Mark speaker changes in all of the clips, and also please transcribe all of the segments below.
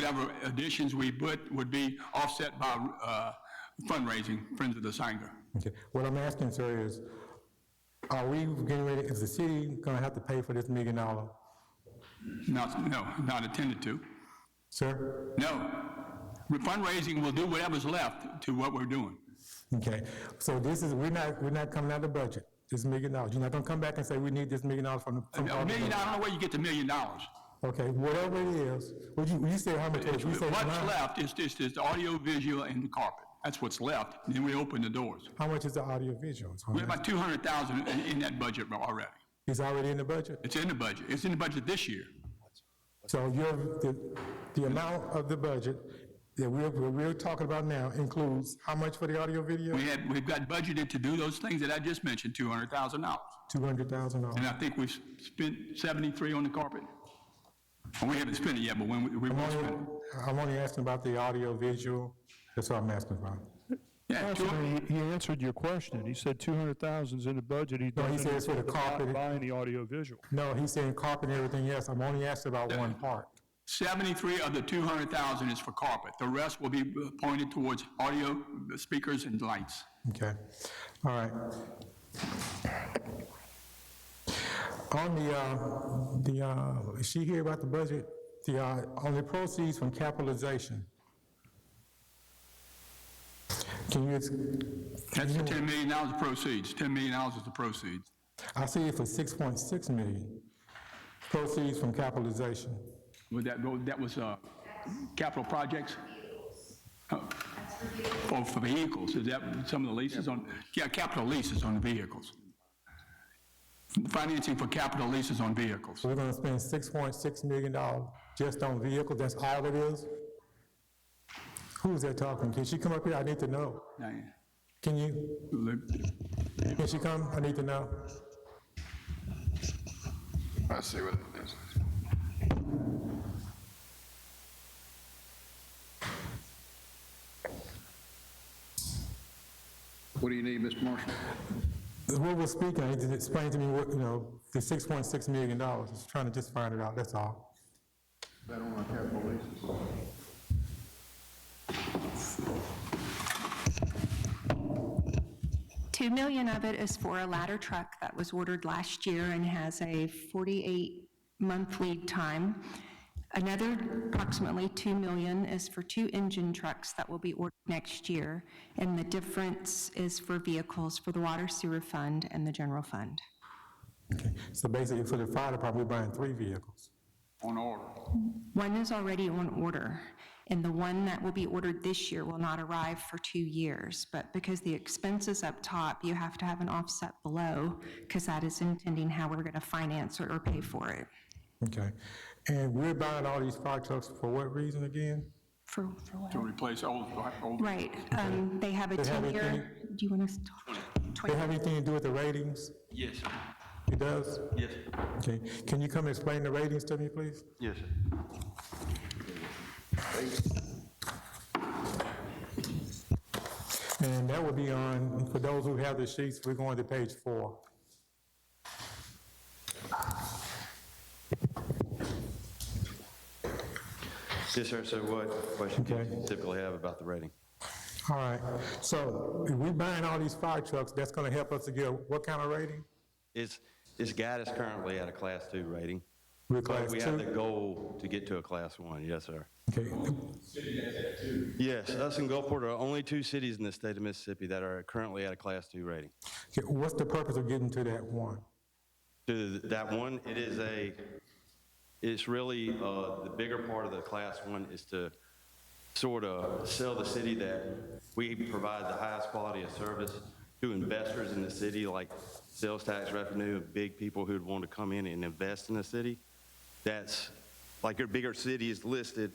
Speaker 1: whatever additions we put would be offset by uh, fundraising, Friends of the Sanger.
Speaker 2: Okay, what I'm asking, sir, is, are we getting ready, is the city gonna have to pay for this million dollar?
Speaker 1: Not, no, not attended to.
Speaker 2: Sir?
Speaker 1: No. Fundraising will do whatever's left to what we're doing.
Speaker 2: Okay, so this is, we're not, we're not coming out of the budget, this million dollars. You're not gonna come back and say, we need this million dollars from. the-
Speaker 1: A
Speaker 2: from all the
Speaker 1: million,
Speaker 2: budget."
Speaker 1: I don't know where you get the million dollars.
Speaker 2: Okay, whatever it is, would you, you said how much, it is. you
Speaker 1: What's
Speaker 2: said nine.
Speaker 1: left is just, is the audio, visual, and the carpet. That's what's left. Then we open the doors.
Speaker 2: How much is the audio visual?
Speaker 1: We're about 200,000 in- in that budget already.
Speaker 2: It's already in the budget.
Speaker 1: It's in the budget. It's in the budget this year.
Speaker 2: So your, the, the amount of the budget that we're, we're talking about now includes how much for the audio video?
Speaker 1: We had, we've got budgeted to do those things that I just mentioned, $200,000.
Speaker 2: Two hundred thousand dollars.
Speaker 1: And I think we've spent 73 on the carpet. And we haven't spent it yet, but when we, we
Speaker 2: I'm
Speaker 1: will
Speaker 2: only,
Speaker 1: spend it.
Speaker 2: I'm only asking about the audio visual, that's what I'm asking about.
Speaker 1: Yeah, two-
Speaker 3: He he answered your question. He said 200,000's in the budget. He doesn't.
Speaker 2: said it's for the carpet.
Speaker 3: Buy any audio visual.
Speaker 2: No, he's saying carpet and everything, yes, I'm only asking about one part.
Speaker 1: 73 of the 200,000 is for carpet. The rest will be pointed towards audio, uh, speakers, and lights.
Speaker 2: Okay, all right. On the, uh, the, uh, is she here about the budget? The, uh, on the proceeds from capitalization? Can you, ex-
Speaker 1: That's the $10 million of proceeds. $10 million is the proceeds.
Speaker 2: I see it for 6.6 million, proceeds from capitalization.
Speaker 1: Would that go, that was uh, capital projects? Oh, Oh, for vehicles, is that some of the leases on, yeah, capital leases on vehicles. Financing for capital leases on vehicles.
Speaker 2: We're gonna spend $6.6 million just on vehicles, that's all it is? Who's that talking? Can she come up here? I need to know.
Speaker 1: Diane,
Speaker 2: Can you,
Speaker 1: Luke,
Speaker 2: can she come? I need to know.
Speaker 4: I see what it is. What do you need, Mr. Marshall?
Speaker 2: What we're speaking, I need to explain to me what, you know, the $6.6 million, just trying to just find it out, that's all.
Speaker 4: That on our capital leases.
Speaker 5: Two million of it is for a ladder truck that was ordered last year and has a 48-month lead time. Another approximately two million is for two engine trucks that will be ordered next year, and the difference is for vehicles for the water sewer fund and the general fund.
Speaker 2: Okay. So basically, for the fire department, we're buying three vehicles.
Speaker 1: on order.
Speaker 5: One is already on order, and the one that will be ordered this year will not arrive for two years. But because the expense is up top, you have to have an offset below, because that is intending how we're going to finance or or pay for it.
Speaker 2: Okay. And we're buying all these fire trucks for what reason again?
Speaker 5: For, for what?
Speaker 1: To replace old, old.
Speaker 5: Right, um, they have a
Speaker 2: They have it
Speaker 5: 10-year, do you want us to talk?
Speaker 2: They
Speaker 5: 20
Speaker 2: have anything to do with the ratings?
Speaker 6: Yes, sir.
Speaker 2: It does?
Speaker 6: yes, sir.
Speaker 2: Okay, can you come and explain the ratings to me, please?
Speaker 6: yes. sir.
Speaker 2: And that will be on, for those who have the sheets, we're going to page four.
Speaker 6: Yes, sir, so what question do
Speaker 2: Okay.
Speaker 6: you typically have about the rating?
Speaker 2: All right, so if we buying all these fire trucks, that's gonna help us to get what kind of rating?
Speaker 6: It's, it's got us currently at a Class 2 rating.
Speaker 2: We're
Speaker 6: But
Speaker 2: class
Speaker 6: we have the
Speaker 2: two?
Speaker 6: goal to get to a Class 1, yes, sir.
Speaker 2: Okay,
Speaker 6: Yes, us and Gulfport are only two cities in the state of Mississippi that are currently at a Class 2 rating.
Speaker 2: Okay, what's the purpose of getting to that one?
Speaker 6: To that one, it is a, it's really, uh, the bigger part of the Class 1 is to sort of sell the city that we provide the highest quality of service to investors in the city, like sales tax revenue, big people who'd want to come in and invest in the city. That's, like your bigger cities listed,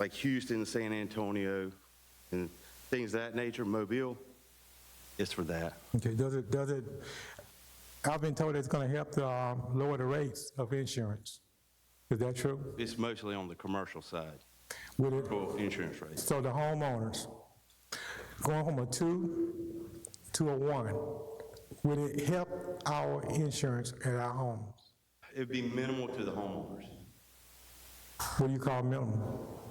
Speaker 6: like Houston, San Antonio, and things of that nature, Mobile, it's for that.
Speaker 2: Okay, does it, does it, I've been told it's gonna help to um, lower the rates of insurance. Is that true?
Speaker 6: It's mostly on the commercial side,
Speaker 2: Would it,
Speaker 6: for insurance rates.
Speaker 2: So the homeowners, going from a two to a one, would it help our insurance at our home?
Speaker 6: It'd be minimal to the homeowners.
Speaker 2: What do you call minimum?